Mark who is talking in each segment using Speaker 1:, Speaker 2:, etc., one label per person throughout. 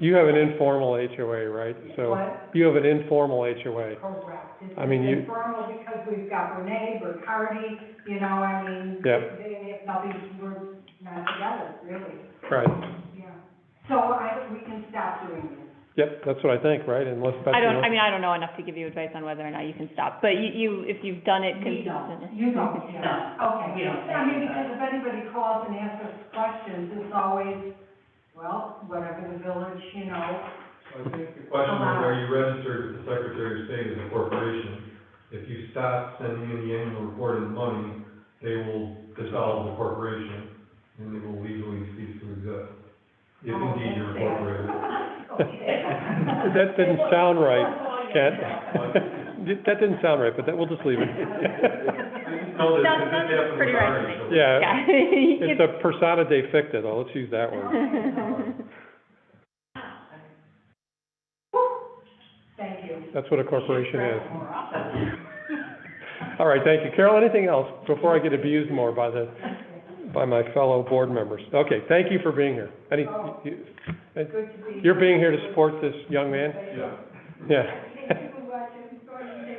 Speaker 1: You have an informal HOA, right? So
Speaker 2: What?
Speaker 1: you have an informal HOA.
Speaker 2: Correct. It's
Speaker 1: I mean, you-
Speaker 2: Informal because we've got Renee, Bacardi, you know, I mean,
Speaker 1: Yeah.
Speaker 2: they, nothing, we're not together, really,
Speaker 1: Right.
Speaker 2: yeah. So I, we can stop doing this.
Speaker 1: Yep, that's what I think, right? Unless that's.
Speaker 3: I don't, I mean, I don't know enough to give you advice on whether or not you can stop, but you, you, if you've done it
Speaker 2: We don't,
Speaker 3: consistently.
Speaker 2: you don't, yeah, okay.
Speaker 4: we don't.
Speaker 2: I mean, because if anybody calls and asks us questions, it's always, well, whatever the village, you know,
Speaker 5: I think the question is, are you registered with the Secretary of State as a corporation? If you stop sending in the annual report and money, they will dissolve the corporation, and they will legally cease to exist. If
Speaker 3: Oh,
Speaker 5: indeed you're incorporated.
Speaker 2: Oh, Okay.
Speaker 1: That didn't sound right, Ken. That didn't sound right, but that, we'll just leave it.
Speaker 5: No, this,
Speaker 3: Sounds-
Speaker 5: this
Speaker 3: sounds
Speaker 5: happened
Speaker 3: pretty
Speaker 5: with
Speaker 3: right to me.
Speaker 5: Ari, so-
Speaker 1: Yeah,
Speaker 3: Yeah.
Speaker 1: Uh, it's a persona de ficta, though. Let's use that one.
Speaker 2: Thank you.
Speaker 1: That's what a corporation is. All right, thank you. Carol, anything else before I get abused more by the, by my fellow board members? Okay, thank you for being here. Any, you-
Speaker 2: Good to be.
Speaker 1: you're being here to support this young man?
Speaker 5: Yeah.
Speaker 1: Yeah.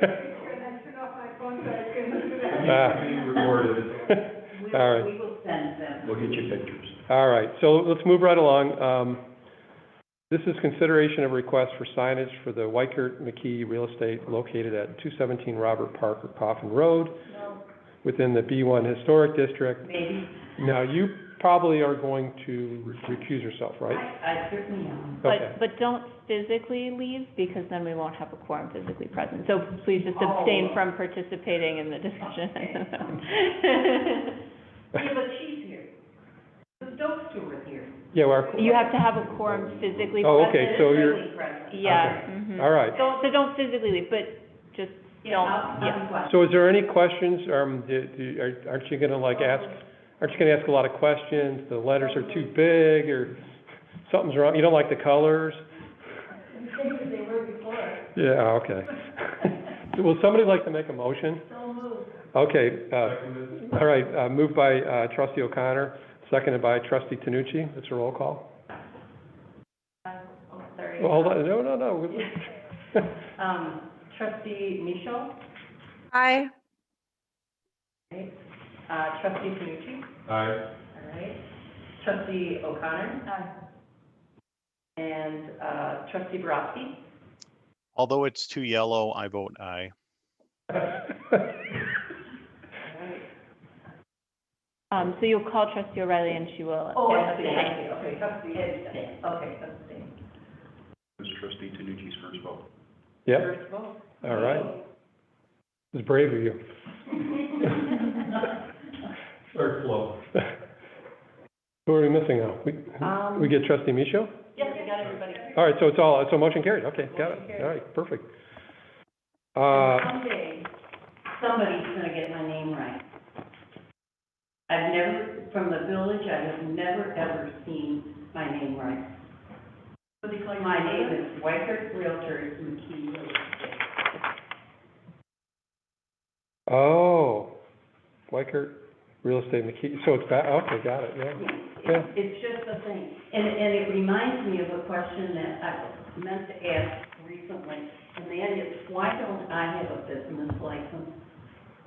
Speaker 1: Ah.
Speaker 5: It needs to be recorded.
Speaker 1: All right.
Speaker 4: We will send them.
Speaker 6: We'll get you pictures.
Speaker 1: All right, so let's move right along. Um, This is consideration of request for signage for the Wykert McKee Real Estate located at 217 Robert Parker Coffin Road within the B1 Historic District.
Speaker 4: Maybe,
Speaker 1: Now, you probably are going to recuse yourself, right?
Speaker 4: I certainly am.
Speaker 1: Okay.
Speaker 3: But, but don't physically leave, because then we won't have a quorum physically present. So please just abstain
Speaker 4: Oh.
Speaker 3: from participating in the discussion.
Speaker 4: Yeah, but she's here. The dope steward here.
Speaker 1: Yeah, well,
Speaker 3: You have to have a quorum physically present.
Speaker 1: Oh, okay, so you're-
Speaker 4: Certainly present.
Speaker 3: Yeah, mhm.
Speaker 1: all right.
Speaker 3: Don't, so don't physically leave, but just
Speaker 4: Yeah,
Speaker 3: don't,
Speaker 4: I'll,
Speaker 3: yeah.
Speaker 4: I'll be glad.
Speaker 1: So is there any questions, um, do- do- are- aren't you gonna like ask, aren't you gonna ask a lot of questions? The letters are too big, or something's wrong, you don't like the colors? Yeah, okay. Will somebody like to make a motion? Okay, uh,
Speaker 5: Seconded.
Speaker 1: all right, uh, moved by, uh, trustee O'Connor, seconded by trustee Tanucci. It's a roll call.
Speaker 4: Oh, sorry.
Speaker 1: Well, Hold on, no, no, no. we-
Speaker 4: Um, trustee Michelle,
Speaker 7: Aye.
Speaker 4: right? Uh, trustee Panucci,
Speaker 5: Aye.
Speaker 4: all right? Trustee O'Connor? And, uh, trustee Borowski?
Speaker 8: Although it's too yellow, I vote aye.
Speaker 4: All right.
Speaker 3: Um, so you'll call trustee O'Reilly and she will.
Speaker 4: Oh, I see, I see, okay, trustee, Ed, okay, trustee.
Speaker 6: It was trustee Tanucci's first vote.
Speaker 1: Yep,
Speaker 4: First vote.
Speaker 1: all right. It's brave of you.
Speaker 5: Start slow.
Speaker 1: Who are we missing now? We,
Speaker 4: Um,
Speaker 1: we get trustee Micho?
Speaker 4: Yes, we got everybody.
Speaker 1: All right, so it's all, so motion carried, okay, got
Speaker 4: Motion
Speaker 1: it,
Speaker 4: carried.
Speaker 1: all right, perfect.
Speaker 4: And
Speaker 1: Uh,
Speaker 4: Someday, somebody's gonna get my name right. I've never, from the village, I have never, ever seen my name right. My name is Wyker Realtors McKee Real Estate.
Speaker 1: oh, Weicker Real Estate McKee, so it's back, okay, got it, yeah.
Speaker 4: Yeah, it- It's just a thing. And, and it reminds me of a question that I meant to ask recently, and that is, why don't I have a business license?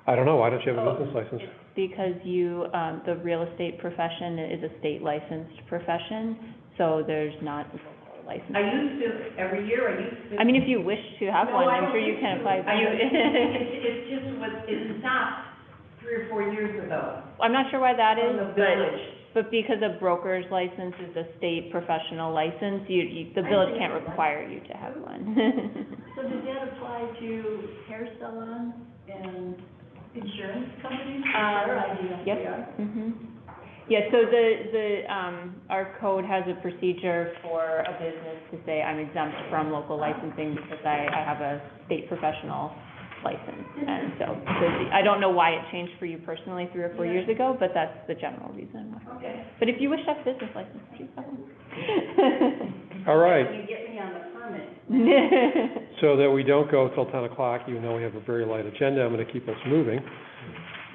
Speaker 1: I don't know, why don't you have a
Speaker 4: Oh,
Speaker 1: business license?
Speaker 3: Because you, um, the real estate profession is a state licensed profession, so there's not local
Speaker 4: I
Speaker 3: license.
Speaker 4: used to, every year, I used to.
Speaker 3: I mean, if you wish to have
Speaker 4: No,
Speaker 3: one,
Speaker 4: I
Speaker 3: I'm
Speaker 4: don't
Speaker 3: sure you
Speaker 4: think
Speaker 3: can
Speaker 4: so.
Speaker 3: apply.
Speaker 4: I
Speaker 3: You-
Speaker 4: don't- It, it just was, it stopped three or four years ago.
Speaker 3: I'm not sure why that
Speaker 4: From
Speaker 3: is,
Speaker 4: the
Speaker 3: but,
Speaker 4: village.
Speaker 3: but because a broker's license is a state professional license, you, you, the
Speaker 4: I
Speaker 3: village
Speaker 4: see.
Speaker 3: can't require you to have one.
Speaker 9: So does that apply to hair salons and insurance companies?
Speaker 3: Um,
Speaker 9: Sure, I do that.
Speaker 3: yep. Mhm. Yeah, so the, the, um, our code has a procedure for a business to say, I'm exempt from local licensing because I, I have a state professional license. And so, so the- I don't know why it changed for you personally three or four years ago, but that's the general reason why.
Speaker 4: Okay.
Speaker 3: But if you wish to have business license, please have one.
Speaker 1: All right,
Speaker 4: You get me on the permit.
Speaker 1: so that we don't go till ten o'clock, even though we have a very light agenda, I'm gonna keep us moving.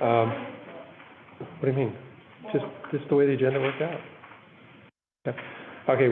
Speaker 1: Um, what do you mean? Just, just the way the agenda worked out. Yeah. Okay,